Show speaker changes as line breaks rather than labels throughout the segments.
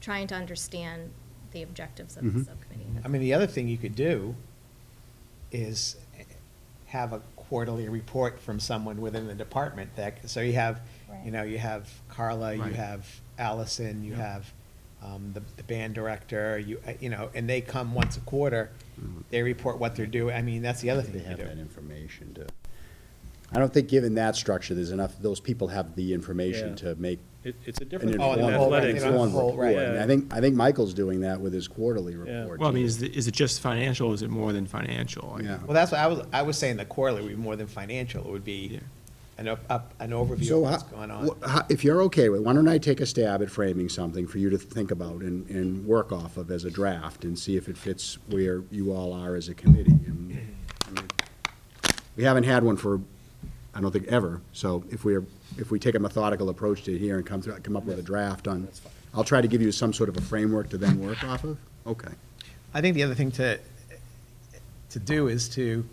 trying to understand the objectives of the
Mhm.
subcommittee.
Mhm.
I mean, the other thing you could do is have a quarterly report from someone within the department that, so you have, you
Right.
know, you have Carla, you
Right.
have Allison, you
Yeah.
have um, the, the band director, you, uh, you know, and they come once a quarter, they report what they're doing, I mean, that's the other
Mm-hmm. They
thing you
have that
do.
information to, I don't think, given that structure, there's enough, those people have the information
Yeah.
to make
It, it's a
an
different
Oh,
form
and
informed,
of
the whole-
athletics.
and the
informed
whole-
report.
right.
And I think, I think Michael's doing that with his quarterly
Yeah.
report.
Well, I mean, is, the- is it just financial, is it more than financial? I mean,
Yeah.
Well, that's what I was, I was saying the quarterly would be more than financial, it would be
Yeah.
an up, up, an overview
So
of
ho-
what's going on.
wh- ho- If you're okay with, it, why don't I take a stab at framing something for you to think about and, and work off of as a draft and see if it fits where you all are as a committee. And, I mean, We haven't had one for, I don't think, ever, so if we're, if we take a methodical approach to here and come, through- come up with a draft on, I'll try to give you some sort of a framework to then work off of. Okay.
I think the other thing to, to do is to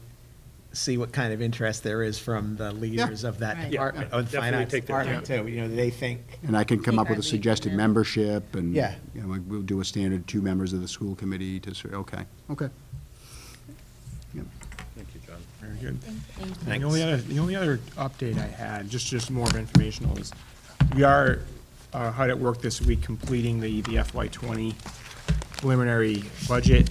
see what kind of interest there is from the leaders of that
Right.
Yeah,
department, of the
definitely
finance
take their
department too. You know, they think,
And I can come up with a
Keep our lead,
suggested
yeah.
membership and.
Yeah.
You know, like, we'll do a standard two members of the school committee to, sort- okay, okay. Yeah.
Thank you, John.
Very good.
Thanks.
The only other, the only other update I had, just, just more of informational, is we are uh, hard at work this week completing the, the FY twenty preliminary budget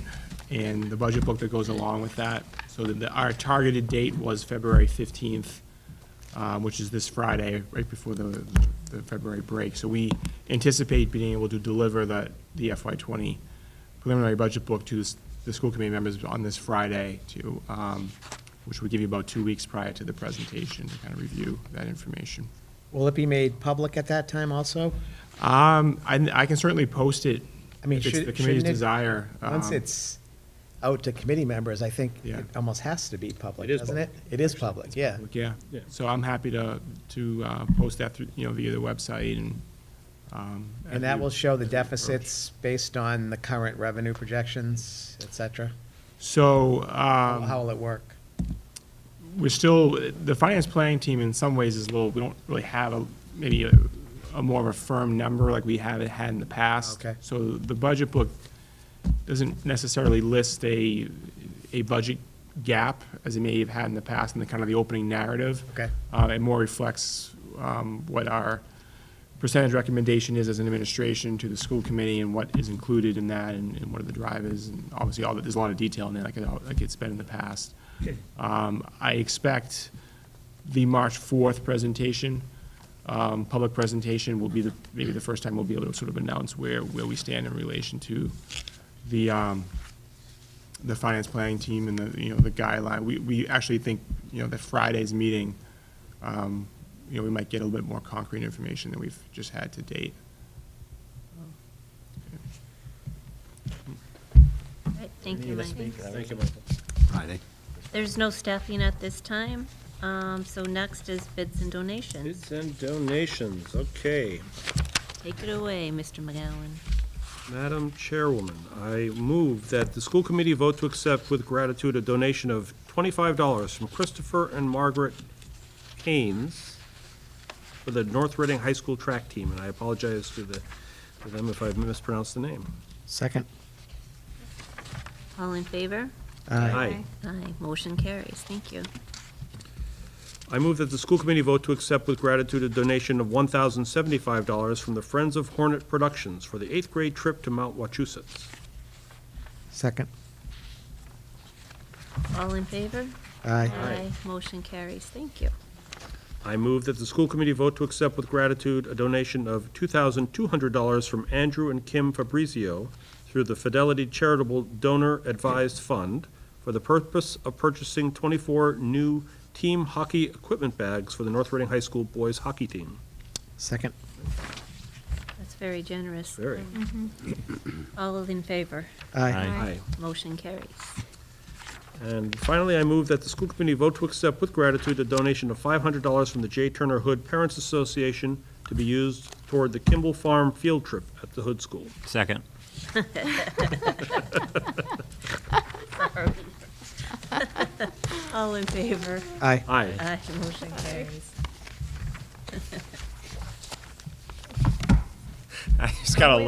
and the budget book that goes along with that. So that the- our targeted date was February fifteenth, um, which is this Friday, right before the, the February break. So we anticipate being able to deliver the, the FY twenty preliminary budget book to s- the school committee members on this Friday to, um, which would give you about two weeks prior to the presentation to kind of review that information.
will it be made public at that time also?
Um, I, I can certainly post it
I mean,
if it's
should-
the committee's
shouldn't it-
desire.
Once
um,
it's out to committee members, I think
Yeah.
it almost has to be public,
It is
doesn't it?
public.
It is public, yeah.
Yeah,
Yeah.
so I'm happy to, to, uh, post that through, you know, via the website and, um. as
And that
we-
will show the
as we approach.
deficits based on the current revenue projections, et cetera.
So,
How
um.
how will it work?
we're still, the finance planning team in some ways is a little, we don't really have a, maybe a, a more of a firm number like we have had in the past.
Okay.
So the budget book doesn't necessarily list a, a budget gap as it may have had in the past in the kind of the opening narrative.
Okay.
Uh, it more reflects, um, what our percentage recommendation is as an administration to the school committee and what is included in that and, and what are the drivers. And obviously, all that, there's a lot of detail in there, like, it all- like it's been in the past. Um, I expect the March fourth presentation, um, public presentation will be the, maybe the first time we'll be able to sort of announce where, where we stand in relation to the, um, the finance planning team and the, you know, the guideline. We, we actually think, you know, that Friday's meeting, um, you know, we might get a little bit more concrete information than we've just had to date.
Right, Thank you, Mike.
Thank you, Michael.
Friday.
There's no staffing at this time, um, so next is bids and donations.
Bids and donations, okay.
Take it away, Mr. McGowan.
Madam Chairwoman, I move that the school committee vote to accept with gratitude a donation of twenty-five dollars from Christopher and Margaret Haynes for the North Reading High School track team, and I apologize to the, to them if I've mispronounced the name.
Second.
All in favor?
Aye.
Aye, motion carries, thank you.
I move that the school committee vote to accept with gratitude a donation of one thousand seventy-five dollars from the Friends of Hornet Productions for the eighth grade trip to Mount Wachusett.
Second.
All in favor?
Aye.
Aye, motion carries, thank you.
I move that the school committee vote to accept with gratitude a donation of $2,200 from Andrew and Kim Fabrizio through the Fidelity Charitable Donor Advised Fund for the purpose of purchasing 24 new team hockey equipment bags for the North Reading High School boys hockey team.
Second.
That's very generous. Um,
Very.
All in favor?
Aye.
Aye.
Motion carries.
And finally, I move that the school committee vote to accept with gratitude a donation of $500 from the J. Turner Hood Parents Association to be used toward the Kimball Farm field trip at the Hood School.
Second.
All in favor?
Aye.
Aye.
Aye, motion carries.
I just got a